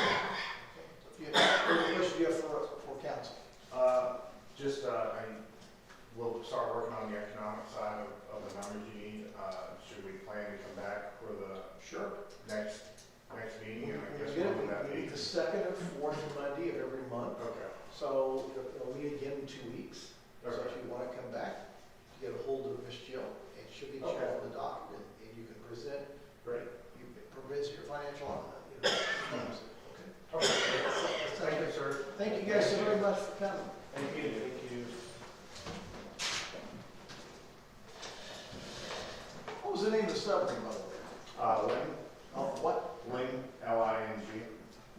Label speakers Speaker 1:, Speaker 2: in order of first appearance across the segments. Speaker 1: Uh, Uh,
Speaker 2: meet the second and fourth Monday of every month.
Speaker 1: Okay,
Speaker 2: So we'll meet again in two weeks. So
Speaker 1: okay.
Speaker 2: if you want to come back, get a hold of Miss Jill and she'll get you
Speaker 1: Okay.
Speaker 2: all the document and you can present,
Speaker 1: Great.
Speaker 2: you present your financial, uh, you know, claims. okay?
Speaker 1: Okay. Thank you, sir.
Speaker 2: Thank you guys so very much for coming.
Speaker 1: Thank you. Thank you.
Speaker 2: What was the name of the submarine, by the way?
Speaker 1: Uh, Ling,
Speaker 2: Oh, what?
Speaker 1: Ling, L I N G.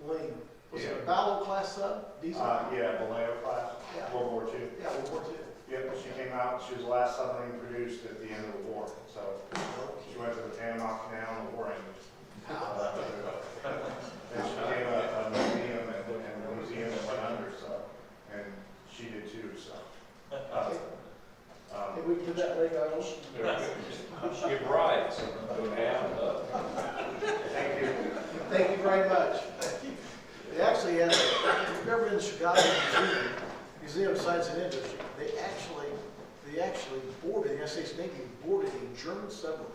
Speaker 2: Lane. Was it
Speaker 1: Yeah.
Speaker 2: a Ballo class sub? Diesel?
Speaker 1: Uh, yeah, Vallejo class,
Speaker 2: Yeah.
Speaker 1: World War II.
Speaker 2: Yeah, World War II.
Speaker 1: Yep, she came out, she was the last submarine produced at the end of the war, so she went to the Panama Canal and the war ended. And she became a, a museum and, and a museum that went under, so, and she did too, so. uh, um,
Speaker 2: Did we put that lake on?
Speaker 3: You're right, so go down, up.
Speaker 1: Thank you.
Speaker 2: Thank you very much. They actually had, if you've ever been to Chicago Museum, Museum of Science and Industry, they actually, they actually boarded, the United States Navy boarded a German submarine.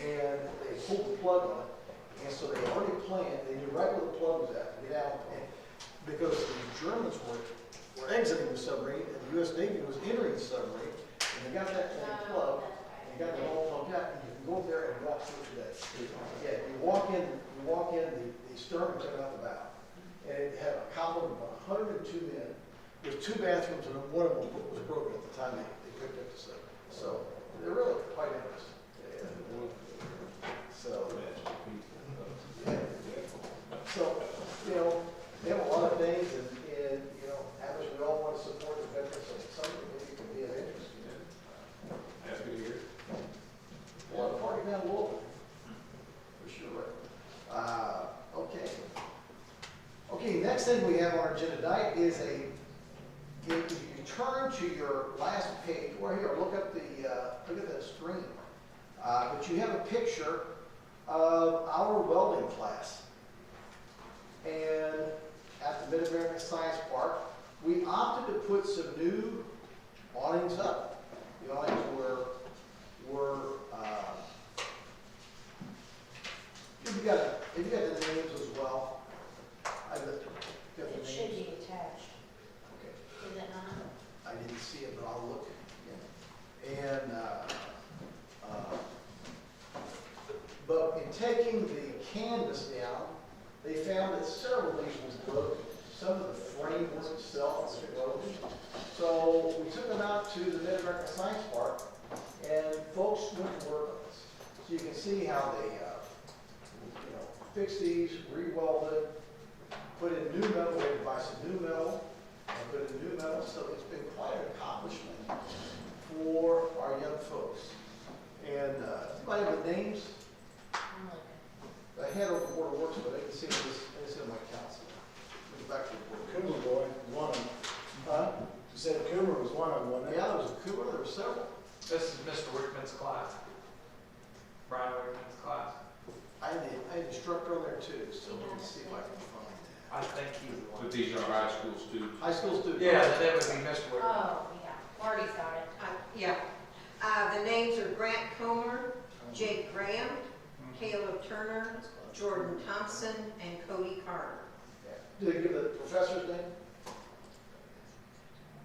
Speaker 2: And they pulled the plug on it, and so they already planned, they knew right where the plug was at, to get out. And Because the Germans were, were exiting the submarine, and the US Navy was entering the submarine, and they got that thing plugged, and they got it all plugged out, and you can go there and watch it today. Yeah, you walk in, you walk in, the, the stern was coming out the bow. And it had a column of hundred and two men with two bathrooms and one of them was broken at the time they, they picked up the stuff. So they're really quite interesting. Yeah. So, yeah. so, you know, they have a lot of things and, and, you know, others, we all want to support the veterans, so some of it maybe could be of interest, you know.
Speaker 3: Happy to hear.
Speaker 2: Well, the party down low, for sure. Uh, okay. Okay, next thing we have on our agenda tonight is a, if you turn to your last page, or here, look up the, uh, look at the screen. Uh, but you have a picture of our welding class. And at the Mid-American Science Park, we opted to put some new awnings up. The awnings were were, uh, if you got, if you got the names as well, I got the, got the
Speaker 4: It should
Speaker 2: names.
Speaker 4: be attached,
Speaker 2: Okay,
Speaker 4: is it not?
Speaker 2: I didn't see it, but I'll look again. And, uh, uh, but in taking the canvas down, they found that several of these was broken. Some of the framework itself was broken. So we took them out to the Mid-America Science Park, and folks went to work on this. So you can see how they, uh, you know, fixed these, re-welded, put in new metal, they buy some new metal, and put in new metal, so it's been quite an accomplishment for our young folks. And, uh, anybody with names,
Speaker 4: I'm looking.
Speaker 2: I hand over Board of Works, but I can see this, I can see my council. Go Back to the board.
Speaker 5: Coomer boy, one of them.
Speaker 2: Huh?
Speaker 5: You said Coomer was one of them, wasn't it?
Speaker 2: Yeah, there was a Cooper, there were several.
Speaker 6: This is Mr. Wickman's class. Brian Wickman's class.
Speaker 2: I had, the- I had instructor on there too, so let me see if I can find that.
Speaker 6: I think he's the one.
Speaker 3: But these are high school students.
Speaker 2: High school student.
Speaker 6: Yeah, that would be Mr. Wickman.
Speaker 4: Oh, yeah, Marty's got it.
Speaker 7: Uh, Yeah, Uh, the names are Grant Comer, Jake Graham, Caleb Turner, Jordan Thompson, and Cody Carter.
Speaker 2: Did they give the professor's name?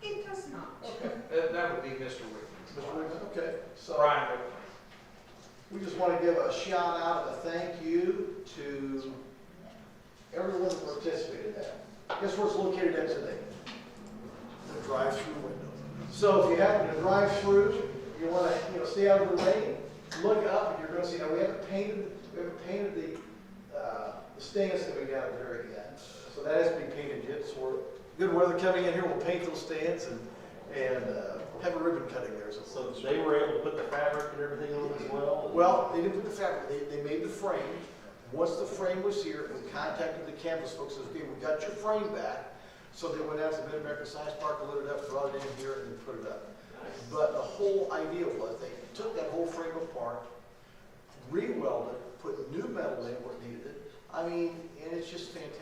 Speaker 7: It does not.
Speaker 2: Okay.
Speaker 6: That, that would be Mr. Wickman's
Speaker 2: Mr.
Speaker 6: class.
Speaker 2: Wiggins, okay. So
Speaker 6: Brian Wickman.
Speaker 2: we just want to give a shout out and a thank you to everyone that participated in that. Guess where it's located at today? The drive-through window. So if you happen to drive through, you want to, you know, stay out of the lane, look up and you're going to see, now we haven't painted, we haven't painted the, uh, the stands that we got up there yet. So that has to be painted yet, so we're, good weather coming in here, we'll paint those stands and, and uh, have a ribbon cutting there. So
Speaker 8: So they were able to put the fabric and everything on as well?
Speaker 2: well, they didn't put the fabric, they, they made the frame. Once the frame was here, we contacted the canvas folks, says, okay, we got your frame back. So they went out to Mid-America Science Park, lit it up, brought it in here and put it up. But the whole idea was they took that whole frame apart, re-welded, put new metal in where it needed it. I mean, and it's just fantastic.